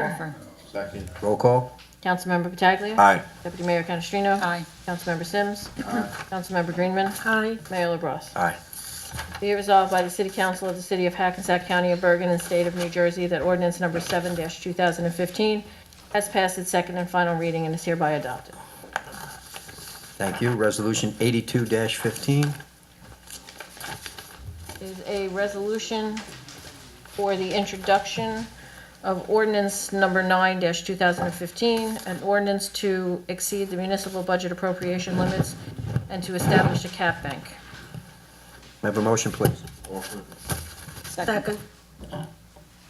offer. Second. Roll call? Councilmember Pataglia. Aye. Deputy Mayor Canestrino. Aye. Councilmember Sims. Councilmember Greenman. Aye. Mayor LaBrus. Aye. Be it resolved by the City Council of the City of Hackensack County of Bergen and State of New Jersey that ordinance number 7-2015 has passed its second and final reading and is hereby adopted. Thank you. Resolution 82-15. is a resolution for the introduction of ordinance number 9-2015, an ordinance to exceed the municipal budget appropriation limits and to establish a cap bank. May I have a motion, please? Second.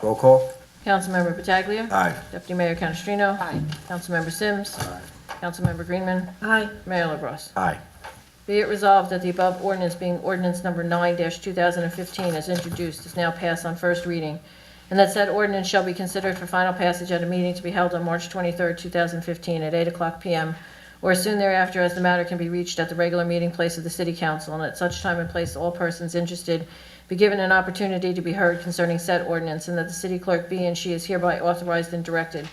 Roll call? Councilmember Pataglia. Aye. Deputy Mayor Canestrino. Aye. Councilmember Sims. Aye. Councilmember Greenman. Aye. Mayor LaBrus. Aye. Be it resolved that the above ordinance being ordinance number 9-2015 as introduced is now passed on first reading, and that said ordinance shall be considered for final passage at a meeting to be held on March 23, 2015, at 8:00 p.m., or as soon thereafter as the matter can be reached at the regular meeting place of the city council, and at such time and place all persons interested be given an opportunity to be heard concerning said ordinance, and that the city clerk be and she is hereby authorized and directed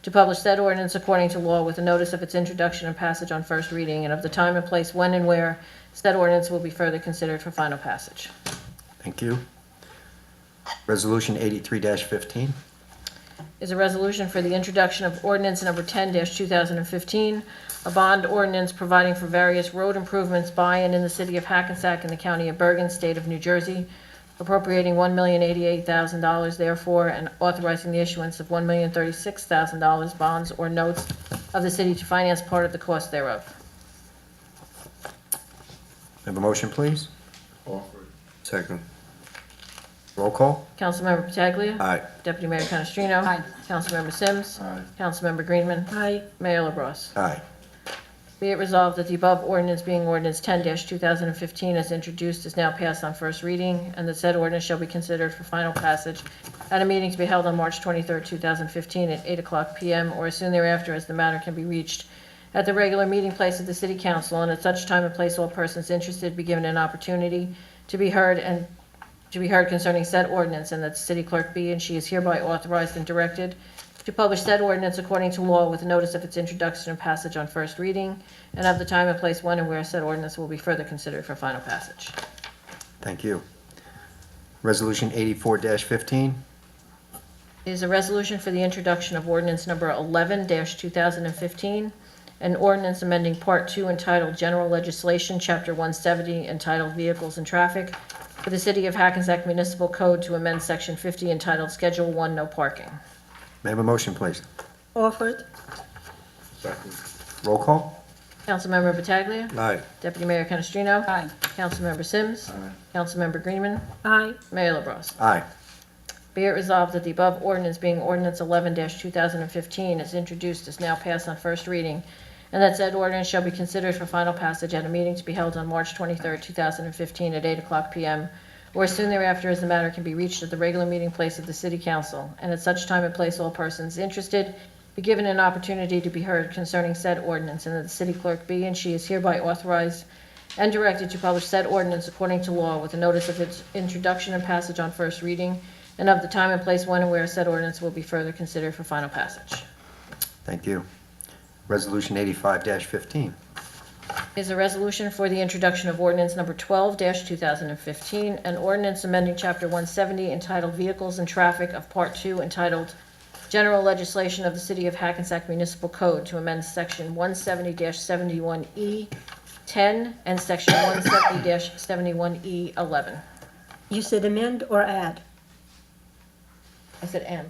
to publish said ordinance according to law with a notice of its introduction and passage on first reading and of the time and place when and where said ordinance will be further considered for final passage. Thank you. Resolution 83-15. Is a resolution for the introduction of ordinance number 10-2015, a bond ordinance providing for various road improvements by and in the city of Hackensack and the county of Bergen, state of New Jersey, appropriating $1,088,000 therefore and authorizing the issuance of $1,036,000 bonds or notes of the city to finance part of the cost thereof. May I have a motion, please? Offered. Second. Roll call? Councilmember Pataglia. Aye. Deputy Mayor Canestrino. Aye. Councilmember Sims. Aye. Councilmember Greenman. Aye. Mayor LaBrus. Aye. Be it resolved that the above ordinance being ordinance 10-2015 as introduced is now passed on first reading, and that said ordinance shall be considered for final passage at a meeting to be held on March 23, 2015, at 8:00 p.m. or as soon thereafter as the matter can be reached at the regular meeting place of the city council, and at such time and place all persons interested be given an opportunity to be heard and to be heard concerning said ordinance, and that the city clerk be and she is hereby authorized and directed to publish said ordinance according to law with notice of its introduction and passage on first reading, and of the time and place when and where said ordinance will be further considered for final passage. Thank you. Resolution 84-15. Is a resolution for the introduction of ordinance number 11-2015, an ordinance amending Part 2 entitled General Legislation, Chapter 170, entitled Vehicles and Traffic, for the City of Hackensack Municipal Code to amend Section 50 entitled Schedule 1 No Parking. May I have a motion, please? Offered. Second. Roll call? Councilmember Pataglia. Aye. Deputy Mayor Canestrino. Aye. Councilmember Sims. Aye. Councilmember Greenman. Aye. Mayor LaBrus. Aye. Be it resolved that the above ordinance being ordinance 11-2015 is introduced is now passed on first reading, and that said ordinance shall be considered for final passage at a meeting to be held on March 23, 2015, at 8:00 p.m., or as soon thereafter as the matter can be reached at the regular meeting place of the City Council, and at such time and place all persons interested be given an opportunity to be heard concerning said ordinance, and that the city clerk be and she is hereby authorized and directed to publish said ordinance according to law with a notice of its introduction and passage on first reading, and of the time and place when and where said ordinance will be further considered for final passage. Thank you. Resolution 85-15. Is a resolution for the introduction of ordinance number 12-2015, an ordinance amending Chapter 170 entitled Vehicles and Traffic of Part 2 entitled General Legislation of the City of Hackensack Municipal Code to amend Section 170-71E 10 E and Section 170-71E 11. You said amend or add? I said and.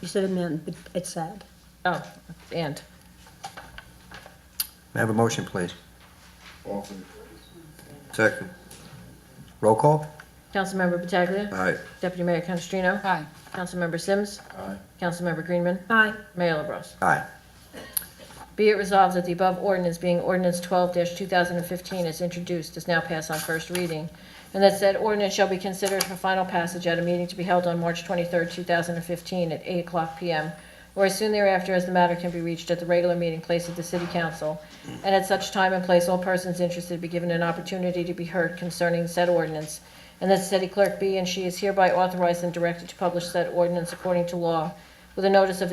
You said amend, but it's add. Oh, and. May I have a motion, please? Offered. Second. Roll call? Councilmember Pataglia. Aye. Deputy Mayor Canestrino. Aye. Councilmember Sims. Aye. Councilmember Greenman. Aye. Mayor LaBrus. Aye. Be it resolved that the above ordinance being ordinance 12-2015 is introduced, is now passed on first reading, and that said ordinance shall be considered for final passage at a meeting to be held on March 23, 2015, at 8:00 p.m., or as soon thereafter as the matter can be reached at the regular meeting place of the city council, and at such time and place all persons interested be given an opportunity to be heard concerning said ordinance, and that city clerk be and she is hereby authorized and directed to publish said ordinance according to law with a notice of its